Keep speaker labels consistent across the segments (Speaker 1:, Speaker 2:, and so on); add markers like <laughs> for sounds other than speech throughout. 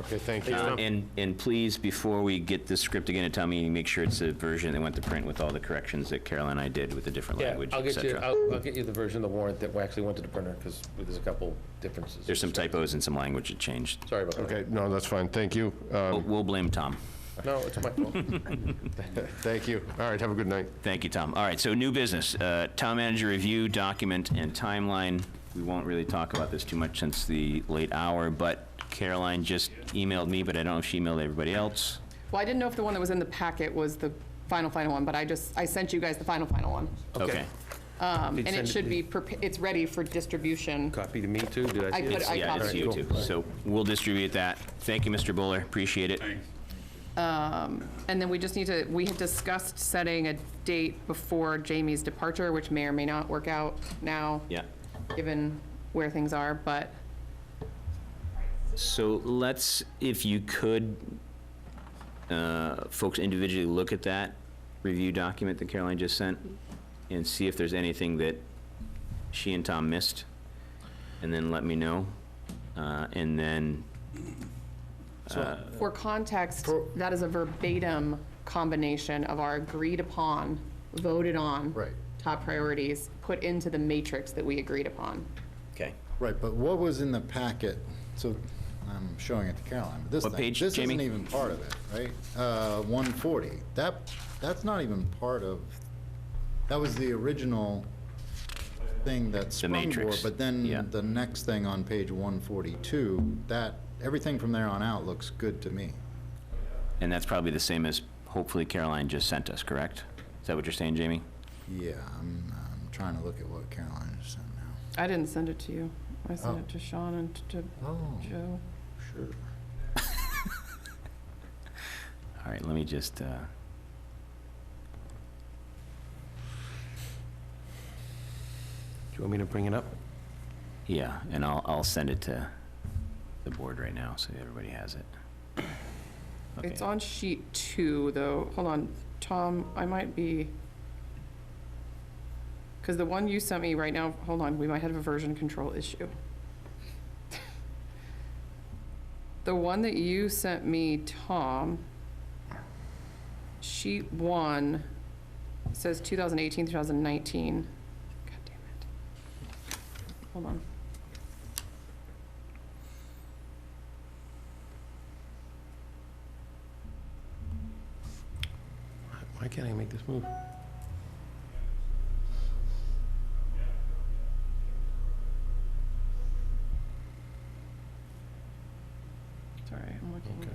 Speaker 1: Okay, thank you.
Speaker 2: Uh, And, and please, before we get this script again at town meeting, make sure it's the version that went to print with all the corrections that Carol and I did with the different
Speaker 3: Yeah,
Speaker 2: language,
Speaker 3: I'll
Speaker 2: et
Speaker 3: get you,
Speaker 2: cetera.
Speaker 3: I'll, I'll get you the version of the warrant that actually went to the printer, because there's a couple differences.
Speaker 2: There's some typos and some language that changed.
Speaker 3: Sorry about that.
Speaker 1: Okay, no, that's fine, thank you. Uh,
Speaker 2: We'll- We'll blame Tom.
Speaker 3: No, it's my <laughs> fault.
Speaker 1: Thank you. All right, have a good night.
Speaker 2: Thank you, Tom. All right, so new business, uh, town manager review, document, and timeline. We won't really talk about this too much since the late hour, but Caroline just emailed me, but I don't know if she emailed everybody else.
Speaker 4: Well, I didn't know if the one that was in the packet was the final, final one, but I just, I sent you guys the final, final one.
Speaker 2: Okay.
Speaker 4: Um,
Speaker 3: Did send
Speaker 4: And it
Speaker 3: it
Speaker 4: should
Speaker 3: to-
Speaker 4: be, prepa- it's ready for distribution.
Speaker 3: Copy to me too, did I
Speaker 4: I
Speaker 3: see
Speaker 4: put,
Speaker 3: it?
Speaker 4: I
Speaker 2: Yeah, it's
Speaker 4: copied.
Speaker 2: you too. So we'll distribute that. Thank you, Mr. Buller. Appreciate it.
Speaker 4: And then we just need to, we had discussed setting a date before Jamie's departure, which may or may not work out now.
Speaker 2: Yeah.
Speaker 4: Given where things are, but
Speaker 2: So let's, if you could, uh, folks individually look at that review document that Caroline just sent and see if there's anything that she and Tom missed, and then let me know. Uh, And then,
Speaker 4: for context, that is a verbatim combination of our agreed upon, voted on.
Speaker 1: Right.
Speaker 4: Top priorities, put into the matrix that we agreed upon.
Speaker 2: okay,
Speaker 5: Right, but what was in the packet, so I'm showing it to Caroline, but this
Speaker 2: What
Speaker 5: thing-
Speaker 2: page,
Speaker 5: This isn't
Speaker 2: Jamie?
Speaker 5: even part of it, right? Uh, 140, that, that's not even part of, that was the original thing that sprung for,
Speaker 2: matrix,
Speaker 5: but
Speaker 2: yeah.
Speaker 5: then the next thing on page 142, that, everything from there on out looks good to me.
Speaker 2: and that's probably the same as hopefully Caroline just sent us, correct? Is that what you're saying, Jamie?
Speaker 5: Yeah, I'm, I'm trying to look at what Caroline just sent now.
Speaker 4: I didn't send it to you. I sent it to Sean and to
Speaker 5: Oh,
Speaker 4: Joe.
Speaker 5: sure.
Speaker 2: All right, let me just, uh...
Speaker 3: Do you want me to bring it up?
Speaker 2: Yeah, and I'll, I'll send it to the board right now, so everybody has it. Okay.
Speaker 4: It's on sheet two, though. Hold on, Tom, I might be, because the one you sent me right now, hold on, we might have a version control issue. <laughs> The one that you sent me, Tom, sheet one says 2018, 2019. God damn it. Hold on.
Speaker 3: Why can't I make this move?
Speaker 4: Sorry, I'm looking.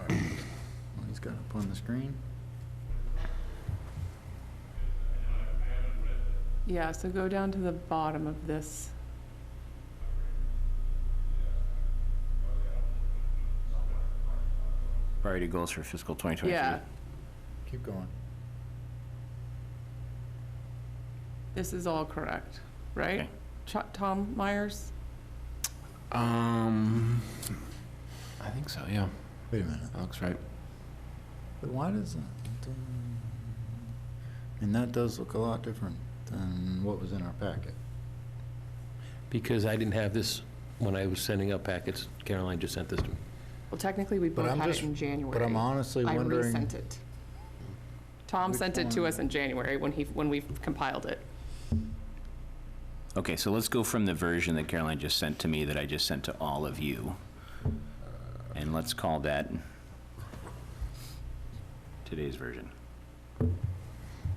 Speaker 5: Well, Oh, He's got it up on the screen.
Speaker 4: Yeah, so go down to the bottom of this.
Speaker 2: Priority goals for fiscal 2023.
Speaker 4: Yeah,
Speaker 5: Keep going.
Speaker 4: this is all correct, right?
Speaker 2: Okay.
Speaker 4: Ch- Tom Myers?
Speaker 6: Um, I think so. Yeah,
Speaker 5: Wait a minute.
Speaker 6: that looks right.
Speaker 5: But why does that? I mean, that does look a lot different than what was in our packet.
Speaker 6: Because I didn't have this when I was sending out packets. Caroline just sent this to me.
Speaker 4: Well, technically, we both
Speaker 5: I'm
Speaker 4: had it
Speaker 5: just-
Speaker 4: in January.
Speaker 5: But I'm honestly
Speaker 4: I
Speaker 5: wondering,
Speaker 4: resent it. Tom
Speaker 5: Which
Speaker 4: sent it to
Speaker 5: one?
Speaker 4: us in January when he, when we compiled it.
Speaker 2: Okay, so let's go from the version that Caroline just sent to me that I just sent to all of you. And let's call that today's version.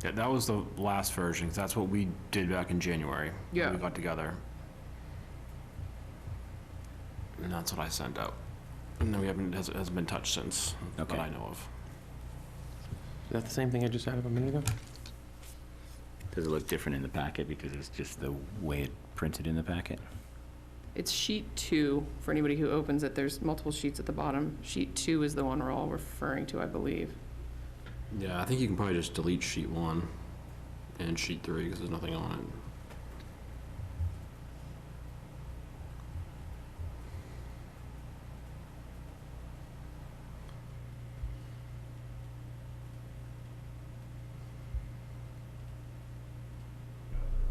Speaker 6: Yeah, that was the last version. 'cause that's what we did back in January. when
Speaker 4: Yeah.
Speaker 6: we got together, and that's what I sent out. And then we haven't it hasn't, hasn't been touched since
Speaker 2: Okay.
Speaker 6: that I know of.
Speaker 7: Is that the same thing I just had up a minute ago?
Speaker 2: Does it look different in the packet because it's just the way it printed in the packet?
Speaker 4: It's sheet two, for anybody who opens it, there's multiple sheets at the bottom. Sheet two is the one we're all referring to, I believe.
Speaker 6: Yeah, I think you can probably just delete sheet one and sheet three because there's nothing on it.